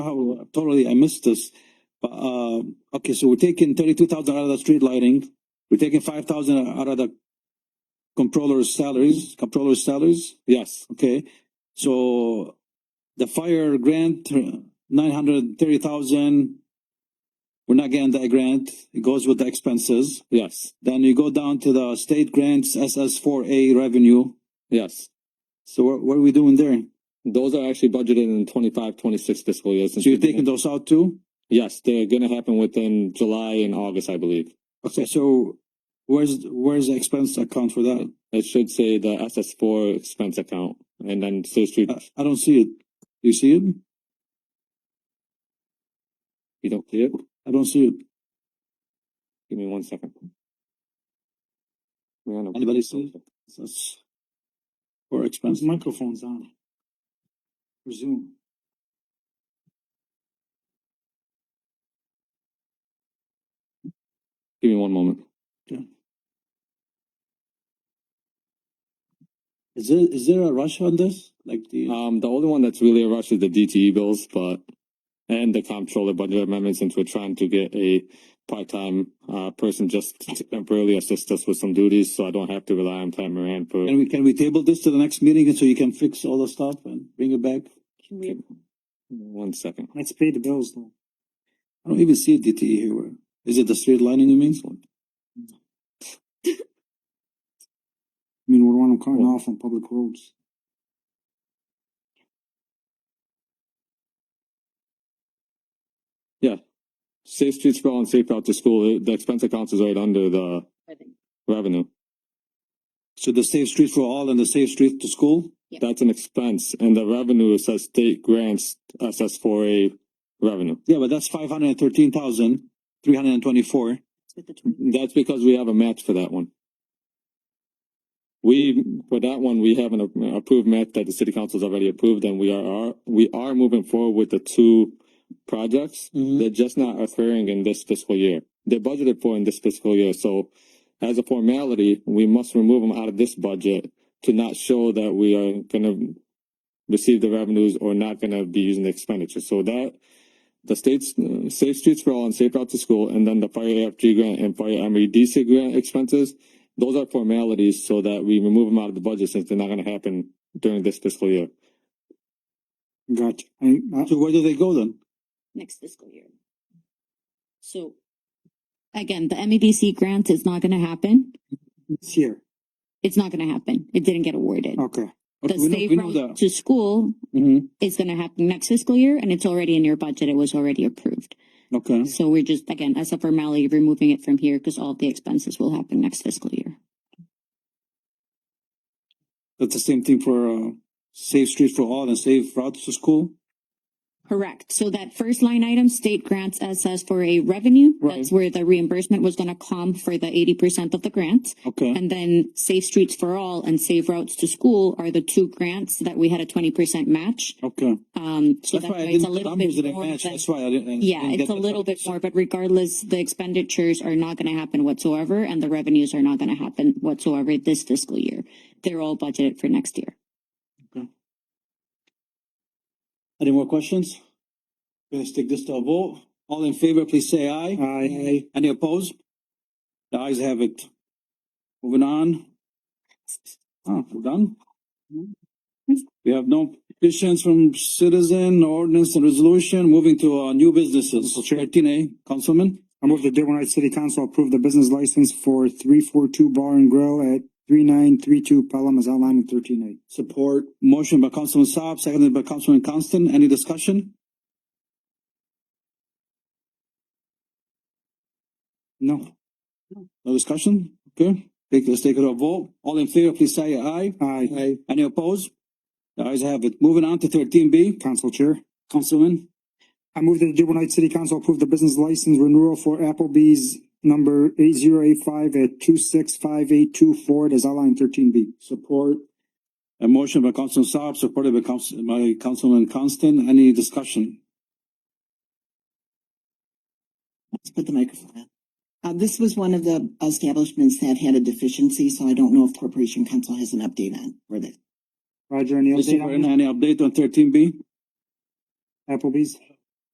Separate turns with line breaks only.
Oh, totally, I missed this. But, uh, okay, so we're taking thirty-two thousand out of the street lighting. We're taking five thousand out of the controller's salaries, controller's salaries? Yes, okay. So the fire grant, nine hundred thirty thousand, we're not getting that grant. It goes with the expenses. Yes. Then you go down to the state grants, SS four A revenue. Yes. So what, what are we doing there?
Those are actually budgeted in 25, 26 fiscal years.
So you're taking those out too?
Yes, they're gonna happen within July and August, I believe.
Okay, so where's, where's the expense account for that?
It should say the SS four expense account and then State Street,
I, I don't see it. You see it?
you don't see it?
I don't see it.
Give me one second. We're on a-
Anybody see That's for expense. Microphone's on. Resume.
Give me one moment.
Is there, is there a rush on this? Like the,
Um, the only one that's really a rush is the DTE bills, but and the comptroller budget amendment since we're trying to get a part-time uh person just to temporarily assist us with some duties, so I don't have to rely on Pat Moran for.
can we, can we table this to the next meeting and so you can fix all the stuff and bring it back?
One second.
Let's pay the bills though. I don't even see a DTE here. Where, is it the straight lining you mean? I mean, we're on cutting off on public roads.
Safe streets for all and safe route to school, the expense accounts is right under the revenue.
So the safe street for all and the safe street to school?
That's an expense and the revenue says state grants SS four A revenue.
Yeah, but that's five hundred and thirteen thousand, three hundred and twenty-four.
That's because we have a match for that one. We, for that one, we have an a- approved match that the city council's already approved and we are, are, we are moving forward with the two projects.
Mm-hmm.
They're just not occurring in this fiscal year. They're budgeted for in this fiscal year, so as a formality, we must remove them out of this budget to not show that we are gonna receive the revenues or not gonna be using the expenditure. So that, the state's uh, Safe Streets for All and Safe Route to School, and then the Fire AFG grant and Fire MEDC grant expenses, those are formalities so that we remove them out of the budget since they're not gonna happen during this fiscal year.
Gotcha. So where do they go then?
next fiscal year. So. Again, the MEDC grant is not gonna happen.
It's here.
It's not gonna happen. It didn't get awarded.
Okay.
The
we know,
state
we know
route
that.
to school
Mm-hmm.
is gonna happen next fiscal year and it's already in your budget. It was already approved.
Okay.
So we're just, again, as a formality, removing it from here because all of the expenses will happen next fiscal year.
That's the same thing for uh, safe streets for all and safe routes to school.
Correct. So that first line item, state grants SS for a revenue,
Right.
that's where the reimbursement was gonna come for the eighty percent of the grant.
Okay.
And then Safe Streets for All and Save Routes to School are the two grants that we had a twenty percent match.
Okay.
Um, so
That's
that's
why I
why it's a
didn't, the
little
numbers
bit
didn't
more.
match.
than-
That's why I didn't. I
Yeah,
didn't
it's a
get the-
little bit more, but regardless, the expenditures are not gonna happen whatsoever and the revenues are not gonna happen whatsoever this fiscal year. They're all budgeted for next year.
Any more questions? Let's take this to a vote. All in favor, please say aye. Aye. Any opposed? The ayes have it. Moving on. Ah, we're done. We have no petitions from citizen, ordinance and resolution. Moving to uh, new businesses. Thirteen A, Councilman.
I move that Dearborn Heights City Council approve the business license for three four two Bar and Grill at three nine three two Pelham as outlined in thirteen A.
Support. Motion by Councilman Saab, seconded by Councilman Constant. Any discussion? No. No discussion? Okay. Take, let's take it a vote. All in favor, please say aye.
Aye.
Any opposed? The ayes have it. Moving on to thirteen B,
Council Chair.
Councilman.
I move that the Dearborn Heights City Council approve the business license renewal for Applebee's number eight zero eight five at two six five eight two Ford as outlined in thirteen B.
Support. A motion by Councilman Saab, supported by Council, by Councilman Constant. Any discussion?
Let's put the microphone on. Uh, this was one of the establishments that had a deficiency, so I don't know if Corporation Council has an update on for that.
Roger, any
Is
update
there
on
any update on thirteen B?
Applebee's?